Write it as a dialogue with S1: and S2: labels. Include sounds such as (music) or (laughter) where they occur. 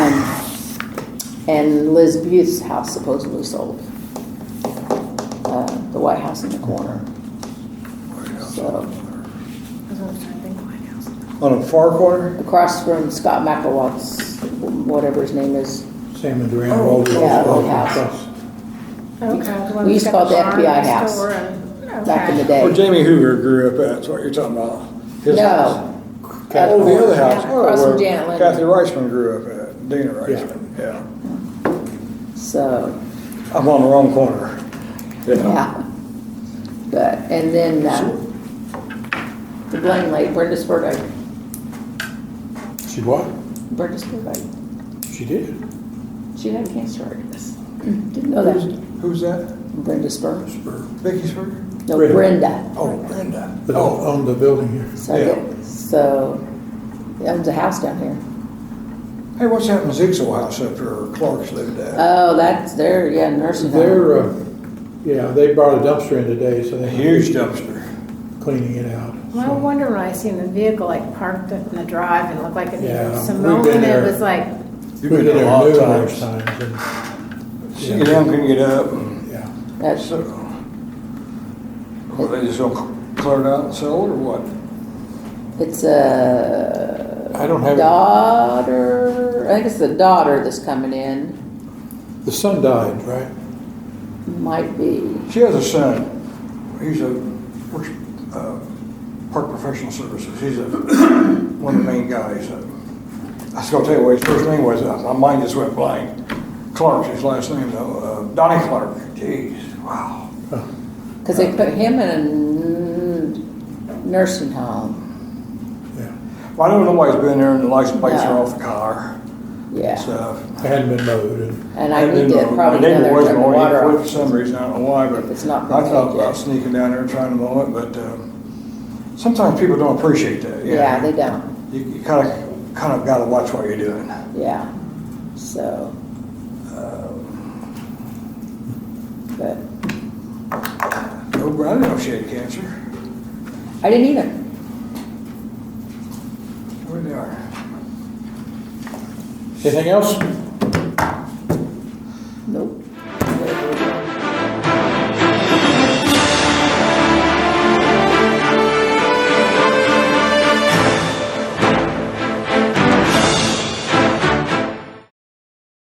S1: And Liz Buth's house supposedly sold. Uh, The White House in the corner. So,
S2: On a far corner,
S1: across from Scott McElwatt's, whatever his name is.
S2: Sam and Duran
S3: Oh,
S2: rolled.
S1: yeah, old house. We used to call it the FBI house back in the day.
S3: Well, Jamie Hoover grew up at, that's what you're talking about. His house.
S1: No,
S3: Oh, the other house. Oh,
S1: Across from
S3: where
S1: Janet Lynn.
S3: Kathy Reichman grew up at, Dana Reichman, yeah.
S1: so,
S3: I'm on the wrong corner.
S1: yeah. But, and then, uh, the Blaine lady, Brenda Spurgeon,
S2: She what?
S1: Brenda Spurgeon,
S2: She did.
S1: she had cancer, I guess. Didn't know that.
S3: Who's that?
S1: Brenda Spurgeon?
S3: Vicky Sperger?
S1: No,
S2: Brenda.
S1: Brenda.
S3: Oh, Brenda.
S2: But
S3: Oh,
S2: owned the building here.
S1: So, I
S3: Yeah.
S1: get- so, he owns a house down here.
S3: hey, what's happened to Zeke's old house up there, Clark's lived at?
S1: Oh, that's, there. yeah, nursing home.
S2: They're, uh, yeah, they brought a dumpster in today, so
S3: A
S2: they're
S3: huge dumpster.
S2: cleaning it out.
S4: Well, I
S2: so.
S4: wonder when I seen the vehicle like parked up in the drive and looked like it
S2: Yeah,
S4: was
S2: we've
S4: Simone,
S2: been
S4: and
S2: there.
S4: it was like,
S3: You've
S2: We've
S3: been there a lot of
S2: numerous
S3: times.
S2: times
S3: She get down, couldn't get up. and
S2: and- Yeah.
S1: That's-
S3: So, well, they just gonna clear it out and sell it or what?
S1: It's a
S2: I don't have, it.
S1: daughter, I think it's the daughter that's coming in,
S2: the son died, right?
S1: might be.
S3: She has a son. He's a works, uh, park professional services. He's a, (coughs) one of the main guys. Uh, I was gonna tell you what his first name was. Uh, My mind just went blank. Clark's his last name though. Uh, Donnie Clark. Jeez, wow.
S2: Oh,
S1: Because they put him in a n- nursing home.
S2: Yeah.
S3: Well, I know nobody's been there and the license plates are
S1: No.
S3: off the car
S1: Yeah.
S3: and stuff.
S2: It hadn't been mowed and,
S1: and I
S3: And
S1: need
S3: then
S1: to
S3: my-
S1: probably
S3: my
S1: go
S3: neighbor
S1: there and
S3: was
S1: turn the
S3: mowing it
S1: water
S3: quit
S1: off.
S3: For some reason, I don't know why, but
S1: If it's
S3: I
S1: not been
S3: thought
S1: paid
S3: about
S1: yet.
S3: sneaking down there and trying to mow it, but, uh, sometimes people don't appreciate that, you
S1: Yeah,
S3: know.
S1: they don't.
S3: You, you kind of, kind of got to watch what you're doing.
S1: Yeah. So. But
S3: No, but I didn't know she had cancer.
S1: I didn't either.
S3: Where they are.
S2: anything else?
S1: Nope.